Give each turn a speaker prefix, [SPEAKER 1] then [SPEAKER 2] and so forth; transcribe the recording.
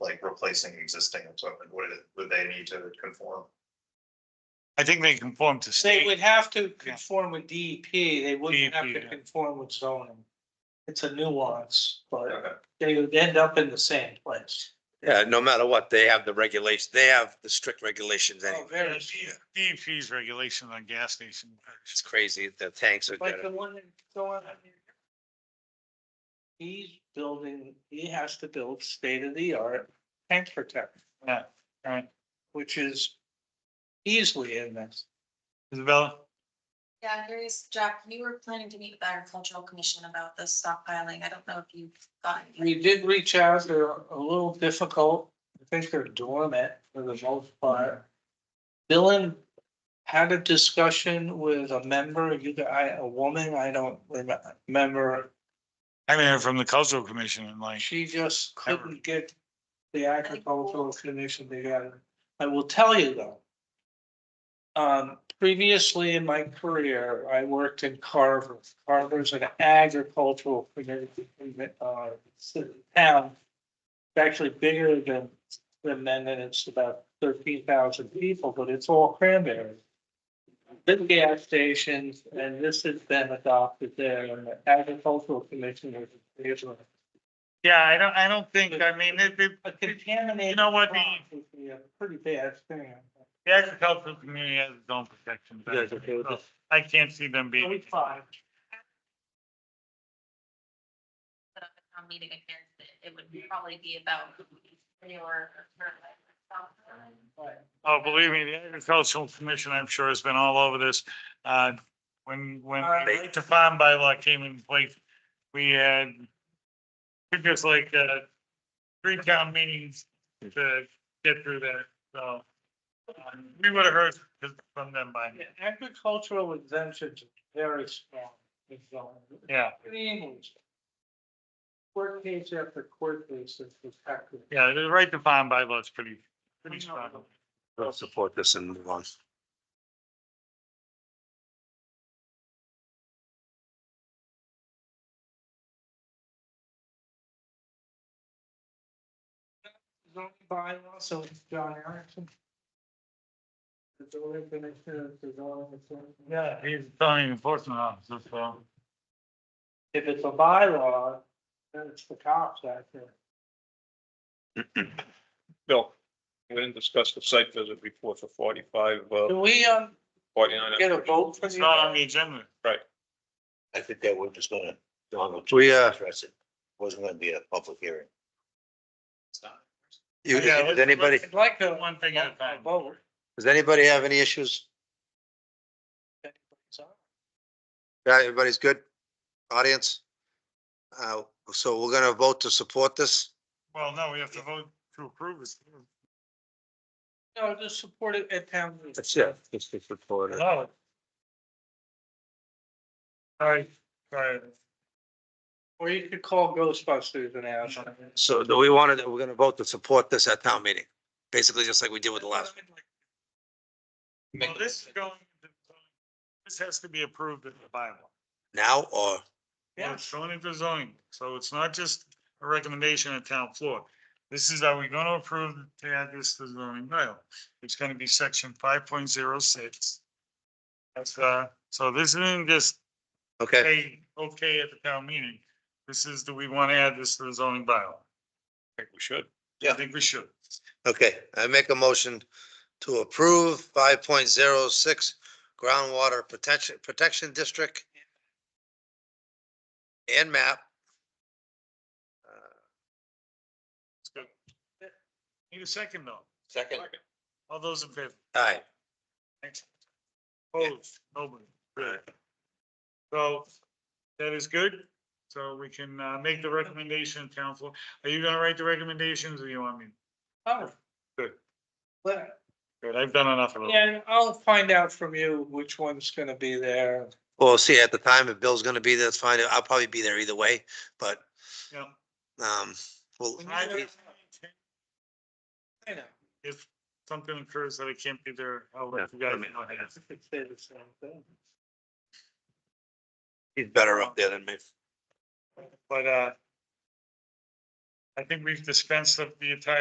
[SPEAKER 1] like replacing existing equipment, would it, would they need to conform?
[SPEAKER 2] I think they conform to
[SPEAKER 3] They
[SPEAKER 2] state.
[SPEAKER 3] would have to conform with DEP, they wouldn't have
[SPEAKER 2] DEP,
[SPEAKER 3] to
[SPEAKER 2] yeah.
[SPEAKER 3] conform with zoning. It's a nuance, but
[SPEAKER 1] Okay.
[SPEAKER 3] they would end up in the same place.
[SPEAKER 4] Yeah, no matter what, they have the regulations, they have the strict regulations
[SPEAKER 3] Oh,
[SPEAKER 4] anyway.
[SPEAKER 3] very,
[SPEAKER 2] DEP's regulation on gas station.
[SPEAKER 4] It's crazy, the tanks are,
[SPEAKER 3] like the
[SPEAKER 4] gonna-
[SPEAKER 3] one that's going on. here. He's building, he has to build state of the art tank protector.
[SPEAKER 2] Yeah, right.
[SPEAKER 3] Which is easily in this.
[SPEAKER 2] Isabella?
[SPEAKER 5] Yeah, I'm curious, Jack, you were planning to meet with the agricultural commission about the stockpiling. I don't know if you've gotten. any-
[SPEAKER 3] We did reach out, they're a little difficult, I think they're dormant for the most part. Dylan had a discussion with a member, you, got- I, a woman, I don't remem- remember,
[SPEAKER 2] I mean, from the cultural commission and like,
[SPEAKER 3] she just couldn't get the agricultural commission together. I will tell you though. Um, previously in my career, I worked in Carver, Carver's an agricultural community, uh, city- town. It's actually bigger than, than Mendon, it's about thirteen thousand people, but it's all cranberry. Big gas stations, and this has been adopted there, and the agricultural commission was in favor of it
[SPEAKER 2] yeah, I don't, I don't think, I mean, it, it,
[SPEAKER 3] a contaminated.
[SPEAKER 2] You know what, the-
[SPEAKER 3] crop would be a Pretty bad thing.
[SPEAKER 2] the agricultural community has its own protections.
[SPEAKER 4] Yeah, it's okay with
[SPEAKER 2] So I can't see them being,
[SPEAKER 3] Forty-five.
[SPEAKER 5] set up a town meeting against it, it would probably be about manure or fertilizer. stockpiling.
[SPEAKER 2] oh, believe me, the agricultural commission, I'm sure, has been all over this. Uh, when, when
[SPEAKER 3] All
[SPEAKER 2] the
[SPEAKER 3] right.
[SPEAKER 2] to farm bylaw came in place, we had took us like, uh, three town meetings to get through that, so. um, We would have heard from them by, now.
[SPEAKER 3] Agricultural exemptions are very strong. in zoning.
[SPEAKER 2] yeah.
[SPEAKER 3] Extremely. Court case after court case is protected.
[SPEAKER 2] Yeah, the right to farm bylaw is pretty, pretty strong.
[SPEAKER 4] they'll support this and move on.
[SPEAKER 3] Zoning bylaw, so it's John Erickson. The zoning commissioner, the zoning. enforcement.
[SPEAKER 2] Yeah, he's zoning enforcement officer, so.
[SPEAKER 3] If it's a bylaw, then it's the cops out there.
[SPEAKER 6] Bill, we didn't discuss the site visit report for forty-five, uh,
[SPEAKER 3] Do we, um,
[SPEAKER 6] forty-nine.
[SPEAKER 3] get a vote for
[SPEAKER 2] It's not on
[SPEAKER 3] the,
[SPEAKER 2] the agenda.
[SPEAKER 7] I think that we're just gonna, Donald,
[SPEAKER 4] We, uh,
[SPEAKER 7] address it. Wasn't gonna be a public hearing.
[SPEAKER 4] you,
[SPEAKER 2] Yeah,
[SPEAKER 4] does
[SPEAKER 2] let's-
[SPEAKER 4] anybody,
[SPEAKER 2] let's- Like the one thing at a
[SPEAKER 3] a
[SPEAKER 2] time.
[SPEAKER 3] vote?
[SPEAKER 4] does anybody have any issues? Yeah, everybody's good? Audience? Uh, so we're gonna vote to support this?
[SPEAKER 2] Well, no, we have to vote to approve this.
[SPEAKER 3] No, just support it at town. meeting.
[SPEAKER 4] It's to support it.
[SPEAKER 2] No. Sorry, sorry.
[SPEAKER 3] Or you could call Ghostbusters and ask.
[SPEAKER 4] So do we want to, we're gonna vote to support this at town meeting, basically just like we did with the last.
[SPEAKER 2] Well, this is going, this has to be approved in the bylaw.
[SPEAKER 4] Now or,
[SPEAKER 2] Well,
[SPEAKER 3] Yeah,
[SPEAKER 2] it's zoning for zoning, so it's not just a recommendation at town floor. This is, are we gonna approve to add this to the zoning bylaw? It's gonna be section five point zero six. That's, uh, so this isn't just,
[SPEAKER 4] okay,
[SPEAKER 2] hey, okay at the town meeting. This is, do we wanna add this to the zoning bylaw?
[SPEAKER 6] I think we should.
[SPEAKER 2] I think we should.
[SPEAKER 4] okay. I make a motion to approve five point zero six groundwater protection, protection district and map.
[SPEAKER 2] Need a second though.
[SPEAKER 7] Second.
[SPEAKER 2] All those in favor?
[SPEAKER 4] All right,
[SPEAKER 2] Thanks. Opposed, nobody. Good. So that is good. So we can uh, make the recommendation, town floor. Are you gonna write the recommendations or you want me?
[SPEAKER 3] oh.
[SPEAKER 2] Good.
[SPEAKER 3] But,
[SPEAKER 2] Good, I've done enough of it.
[SPEAKER 3] yeah, I'll find out from you which one's gonna be there.
[SPEAKER 4] well, see, at the time, if Bill's gonna be there, that's fine. I'll probably be there either way, but,
[SPEAKER 2] Yeah.
[SPEAKER 4] um, well,
[SPEAKER 2] I-
[SPEAKER 3] I know.
[SPEAKER 2] If something occurs that I can't be there, I'll let you guys know. ahead.
[SPEAKER 3] I could say the same thing.
[SPEAKER 4] he's better up there than me.
[SPEAKER 2] But, uh, I think we've dispensed of the entire